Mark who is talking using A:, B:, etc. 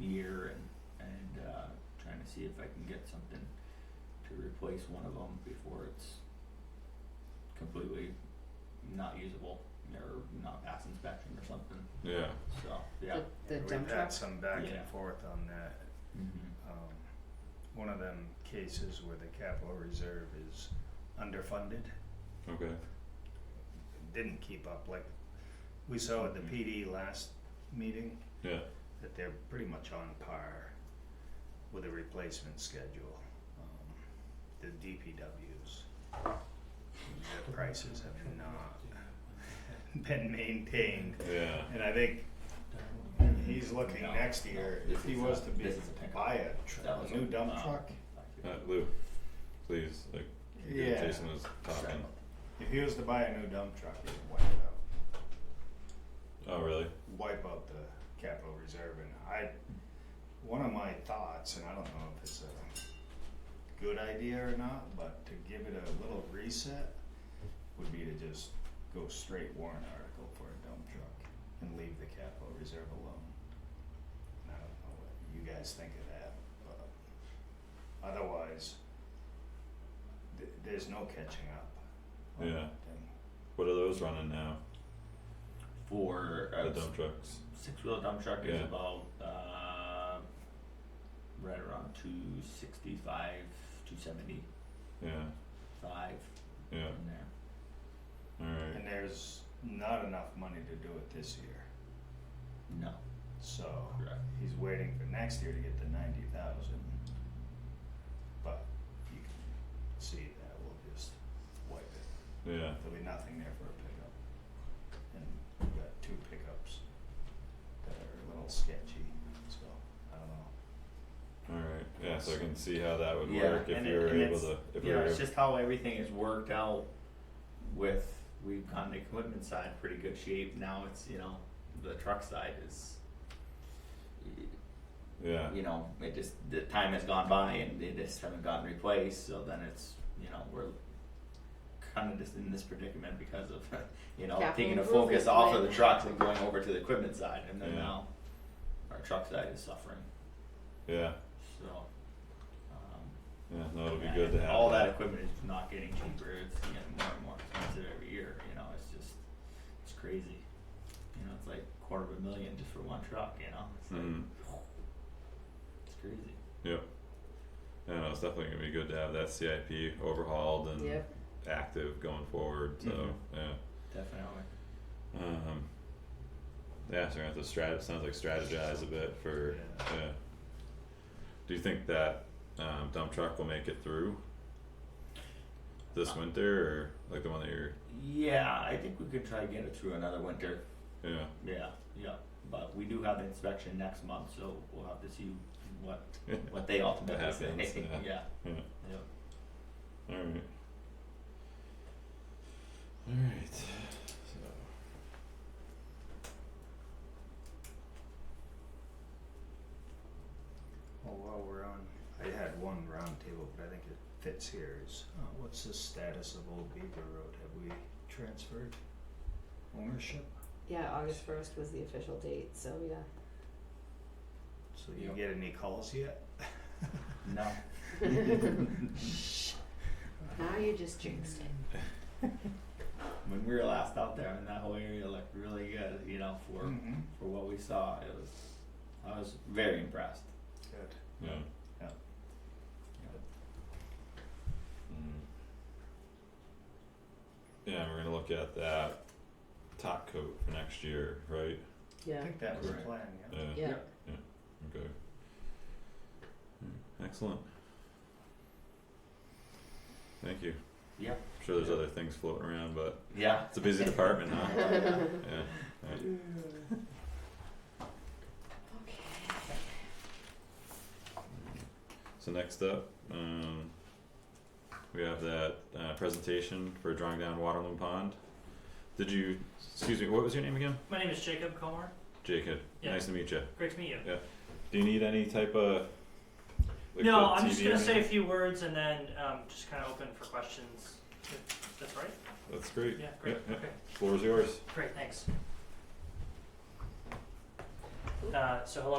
A: year and, and, uh, trying to see if I can get something to replace one of them before it's completely not usable or not past inspection or something,
B: yeah,
A: so, yeah.
C: The, the dump
D: We've
C: truck.
D: had some back
A: Yeah.
D: and forth on that.
A: Mm-hmm.
D: Um, one of them cases where the capital reserve is underfunded,
B: okay,
D: didn't keep up, like, we saw at the
B: Mhm.
D: PD last meeting
B: yeah,
D: that they're pretty much on par with a replacement schedule. Um, The DPWs, their prices have not been maintained,
B: yeah,
D: and I think he's looking
A: No,
D: next
A: no,
D: year,
A: this
D: if he
A: is
D: was
A: a-
D: to be,
A: this is a pickup.
D: buy a tr-
A: That was
D: a new dump
A: um,
D: truck,
B: uh, Lou, please, like, you're
D: Yeah.
B: Jason was talking,
D: if he was to buy a new dump truck, he'd wipe it out.
B: oh, really?
D: wipe out the capital reserve and I, one of my thoughts, and I don't know if it's a good idea or not, but to give it a little reset would be to just go straight warrant article for a dump truck and leave the capital reserve alone. And I don't know what you guys think of that, but otherwise, th- there's no catching up on
B: Yeah.
D: that thing.
B: What are those running now,
A: For
B: the
A: uh,
B: dump trucks?
A: six wheel dump truck is
B: Yeah.
A: about uh, right around two sixty five, two seventy
B: Yeah,
A: five
B: yeah,
A: in there.
B: alright,
D: And there's not enough money to do it this year.
A: No,
D: So
A: correct.
D: he's waiting for next year to get the ninety thousand. But you can see that we'll just wipe it.
B: yeah,
D: There'll be nothing there for a pickup. And we've got two pickups that are a little sketchy, so I don't know.
B: alright, yeah, so I can see how that would
A: Yeah,
B: work if
A: and
B: we
A: it-
B: were
A: and
B: able
A: it's-
B: to, if we
A: yeah,
B: were,
A: it's just how everything is worked out. With we've gotten the equipment side pretty good shape. Now it's you know the truck side is
B: yeah,
A: you know, it just, the time has gone by and they just haven't gotten replaced, so then it's, you know, we're kinda just in this predicament because of, you know,
C: Capital
A: taking the focus
C: improvement
A: off of
C: plan.
A: the trucks and going over to the equipment side, and then
B: Yeah.
A: now our truck side is suffering,
B: yeah,
A: so. um,
B: yeah, no, it'll be
A: and
B: good to have
A: All that equipment is not getting cheaper, it's getting more and more expensive every year, you know, it's just, it's crazy. You know, it's like quarter of a million just for one truck, you know, it's like,
B: Mhm.
A: it's crazy.
B: Yep. Yeah, no, it's definitely gonna be good to have that CIP overhauled and
C: Yep.
B: active going forward. So
A: Mhm.
B: yeah,
A: Definitely.
B: um, yeah. So we're gonna have to strat. Sounds like strategize a bit for
D: Yeah.
B: yeah. Do you think that um, dump truck will make it through this winter, or like the one that you're?
A: Yeah, I think we could try to get it through another winter.
B: Yeah,
A: Yeah, yeah. But we do have the inspection next month, so we'll have to see what what they ultimately
B: What
A: say.
B: happens, yeah.
A: yeah.
B: yeah.
A: yeah.
B: All right. All right. So.
D: Well, while we're on, I had one roundtable, but I think it fits here is, uh, what's the status of Old Beaver Road? Have we transferred ownership?
C: Yeah, August first was the official date, so yeah.
D: So you
A: Yep.
D: get any calls yet?
A: No.
C: Now you just jinxed it.
A: When we were last out there in that whole area looked really good, you know, for
D: Mm-hmm.
A: for what we saw. It was I was very impressed.
D: Good.
B: Yeah.
D: Yeah.
B: Mm. Yeah, we're gonna look at that top coat for next year, right?
D: I
C: Yeah.
D: think that was the
A: Correct.
D: plan, yeah.
B: Yeah,
C: Yeah.
B: okay. Mm, Excellent. Thank you.
A: Yeah.
B: I'm sure there's other things floating around, but
A: Yeah.
B: it's a busy department, huh?
D: Yeah.
B: Yeah, alright, so next up, um, we have that, uh, presentation for drawing down Waterloo Pond. Did you, excuse me, what was your name again?
E: My name is Jacob Comer.
B: Jacob,
E: Yeah.
B: nice to meet you.
E: Great to meet you.
B: Do you need any type of? like,
E: no,
B: the
E: I'm just
B: TV or
E: gonna say a
B: anything?
E: few words and then um, just kind of open for questions. If That's right.
B: That's great.
E: Yeah. Great.
B: yeah.
E: Okay.
B: Floor's yours.
E: Great. Thanks. Uh, so hello.